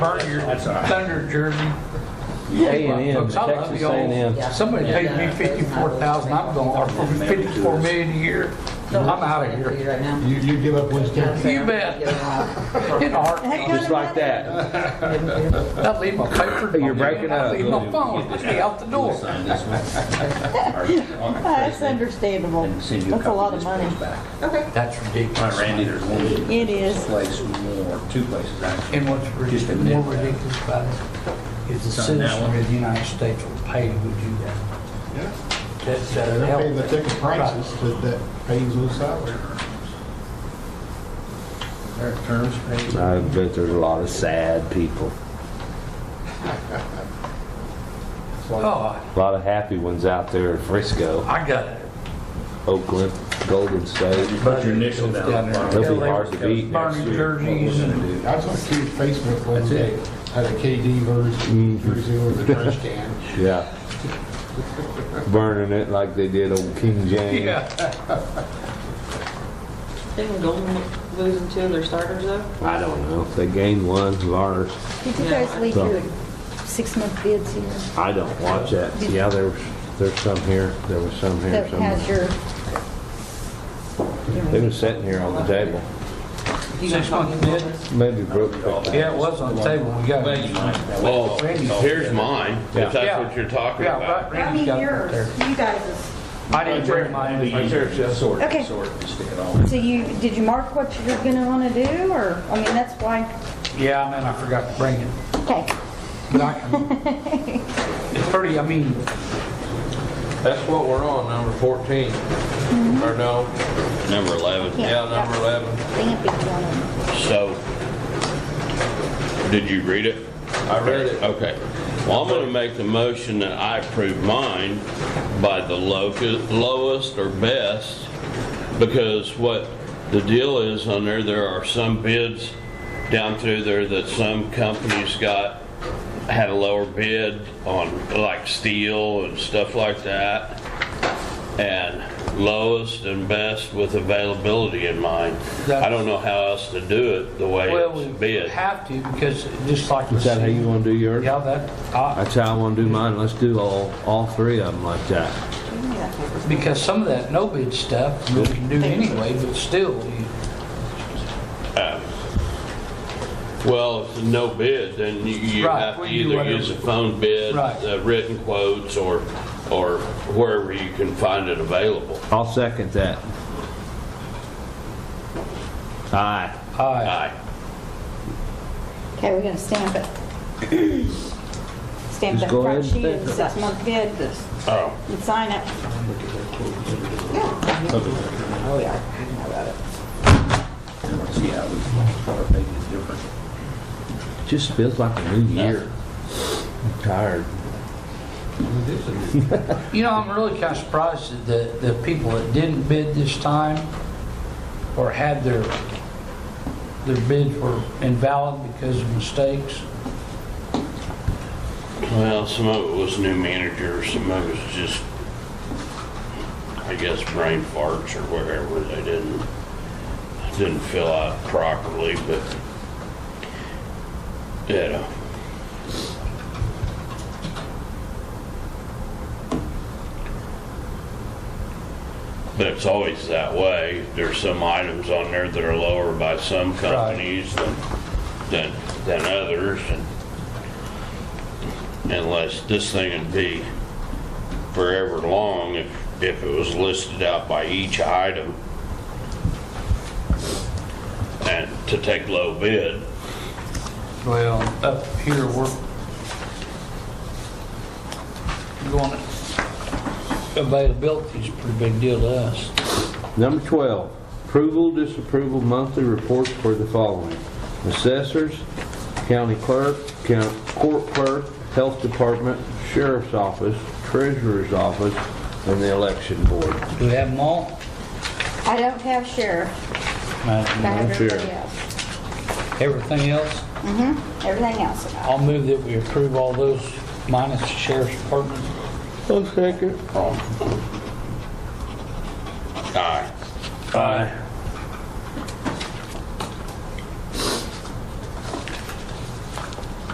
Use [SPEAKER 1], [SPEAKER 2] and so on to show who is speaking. [SPEAKER 1] burn your thunder jersey.
[SPEAKER 2] A&M,
[SPEAKER 1] Folks, I love
[SPEAKER 2] Texas
[SPEAKER 1] y'all.
[SPEAKER 2] A&M.
[SPEAKER 1] Somebody paid me fifty-four thousand, I'm going, or for fifty-four million a year, I'm out of here.
[SPEAKER 3] Right now.
[SPEAKER 4] You, you give up Winston?
[SPEAKER 1] You bet. In a heartbeat.
[SPEAKER 2] Just like that.
[SPEAKER 1] I'll leave my paper.
[SPEAKER 2] You're breaking
[SPEAKER 1] I'll
[SPEAKER 2] up.
[SPEAKER 1] leave my phone, let me out the door.
[SPEAKER 5] Sign this one.
[SPEAKER 6] That's understandable.
[SPEAKER 5] Send you
[SPEAKER 6] That's a
[SPEAKER 5] copy
[SPEAKER 6] lot
[SPEAKER 5] this
[SPEAKER 6] of money.
[SPEAKER 5] goes back.
[SPEAKER 1] That's
[SPEAKER 5] All
[SPEAKER 1] ridiculous.
[SPEAKER 5] right, Randy, there's one
[SPEAKER 6] It is.
[SPEAKER 5] place more, two places actually.
[SPEAKER 1] And what's
[SPEAKER 5] Just
[SPEAKER 1] rid-
[SPEAKER 5] admit
[SPEAKER 1] more
[SPEAKER 5] that.
[SPEAKER 1] ridiculous about it is the
[SPEAKER 5] Sign that
[SPEAKER 1] citizen
[SPEAKER 5] one.
[SPEAKER 1] of the United States will pay to do that.
[SPEAKER 4] Yeah.
[SPEAKER 1] That- that'll
[SPEAKER 4] They're
[SPEAKER 1] help.
[SPEAKER 4] paying the ticket prices that, that pays those salaries.
[SPEAKER 5] Their terms paid.
[SPEAKER 2] I bet there's a lot of sad people,
[SPEAKER 1] Oh,
[SPEAKER 2] a lot of happy ones out there in Frisco,
[SPEAKER 1] I got it.
[SPEAKER 2] Oakland, Golden State.
[SPEAKER 5] Put your initial down.
[SPEAKER 2] They'll be hard to beat
[SPEAKER 1] next year. Burning jerseys and-
[SPEAKER 4] I saw a kid Facebook one day, had a KD version, three zero in the trash can.
[SPEAKER 2] Yeah. Burning it like they did old King James.
[SPEAKER 1] Yeah,
[SPEAKER 3] Didn't Golden losing two of their starters though?
[SPEAKER 2] I don't know. If they gained one, large.
[SPEAKER 6] Did you guys leave your six-month bids here
[SPEAKER 2] I don't watch that. Yeah, there's, there's some here. There was some here
[SPEAKER 6] that has
[SPEAKER 2] somewhere.
[SPEAKER 6] your,
[SPEAKER 2] They was sitting here on the table.
[SPEAKER 1] six months bid.
[SPEAKER 2] Maybe Brooke picked that.
[SPEAKER 1] Yeah, it was on the table, we got it.
[SPEAKER 7] Well, Oh, here's mine, if
[SPEAKER 1] Yeah.
[SPEAKER 7] that's what you're talking
[SPEAKER 1] Yeah,
[SPEAKER 7] about.
[SPEAKER 1] right, Randy's got it right there.
[SPEAKER 6] you guys.
[SPEAKER 1] I didn't bring mine.
[SPEAKER 5] Right there, just sort,
[SPEAKER 6] Okay.
[SPEAKER 5] sort, and stick it all.
[SPEAKER 6] So you, did you mark what you're gonna wanna do, or, I mean, that's why,
[SPEAKER 1] Yeah, and then I forgot to bring it.
[SPEAKER 6] okay.
[SPEAKER 1] But I can- It's pretty, I mean,
[SPEAKER 8] That's what we're on, number 14. Or no,
[SPEAKER 7] Number 11.
[SPEAKER 8] yeah, number 11.
[SPEAKER 6] They have big one.
[SPEAKER 7] So, did you read it?
[SPEAKER 8] I read it.
[SPEAKER 7] Okay. Well, I'm going to make the motion that I approve mine by the loca- lowest or best, because what the deal is on there, there are some bids down through there that some companies got, had a lower bid on, like steel and stuff like that, and lowest and best with availability in mind. I don't know how else to do it the way
[SPEAKER 1] well, we
[SPEAKER 7] it's bid.
[SPEAKER 1] have to because just like.
[SPEAKER 2] Is that how you want to do yours?
[SPEAKER 1] Yeah, that, I-
[SPEAKER 2] That's how I want to do mine. Let's do all, all three of them like that.
[SPEAKER 1] because some of that no bid stuff you can do anyway, but still, you-
[SPEAKER 7] Well, if no bid, then you- you
[SPEAKER 1] Right,
[SPEAKER 7] have to
[SPEAKER 1] we do
[SPEAKER 7] either
[SPEAKER 1] whatever.
[SPEAKER 7] use a phone bid,
[SPEAKER 1] Right.
[SPEAKER 7] uh, written quotes, or, or wherever you can find it available.
[SPEAKER 2] I'll second that. Aye.
[SPEAKER 1] I,
[SPEAKER 7] Aye.
[SPEAKER 6] Okay, we're gonna stamp it. Stamp
[SPEAKER 2] Just
[SPEAKER 6] that
[SPEAKER 2] go
[SPEAKER 6] front
[SPEAKER 2] ahead and
[SPEAKER 6] sheet of
[SPEAKER 2] stamp
[SPEAKER 6] the
[SPEAKER 2] it.
[SPEAKER 6] six-month bid
[SPEAKER 7] Oh,
[SPEAKER 6] and sign it.
[SPEAKER 3] Oh, yeah. I know about it.
[SPEAKER 5] See how we start making it different.
[SPEAKER 2] Just feels like a new year. I'm tired.
[SPEAKER 1] you know, I'm really kind of surprised at the, the people that didn't bid this time or had their, their bids were invalid because of mistakes.
[SPEAKER 7] well, some of it was new managers, some of it was just, I guess, brain farts or whatever, they didn't, didn't fill out properly, but, you know, But it's always that way. There's some items on there that are lower by some companies than, than, than others. and Unless this thing would be forever long if, if it was listed out by each item. And to take low bid,
[SPEAKER 1] Well, up here, we're going, availability's a pretty big deal to us.
[SPEAKER 2] Number 12, approval, disapproval, monthly reports for the following. Assessors, county clerk, county court clerk, health department, sheriff's office, treasurer's office, and the election board.
[SPEAKER 1] Do we have them all?
[SPEAKER 6] I don't have sheriff, but I have
[SPEAKER 2] No sheriff.
[SPEAKER 1] Everything
[SPEAKER 6] everybody else.
[SPEAKER 1] else?
[SPEAKER 6] Everything else.
[SPEAKER 1] I'll move that we approve all those minus the sheriff's department.
[SPEAKER 2] I'll second.
[SPEAKER 7] aye.
[SPEAKER 1] Aye.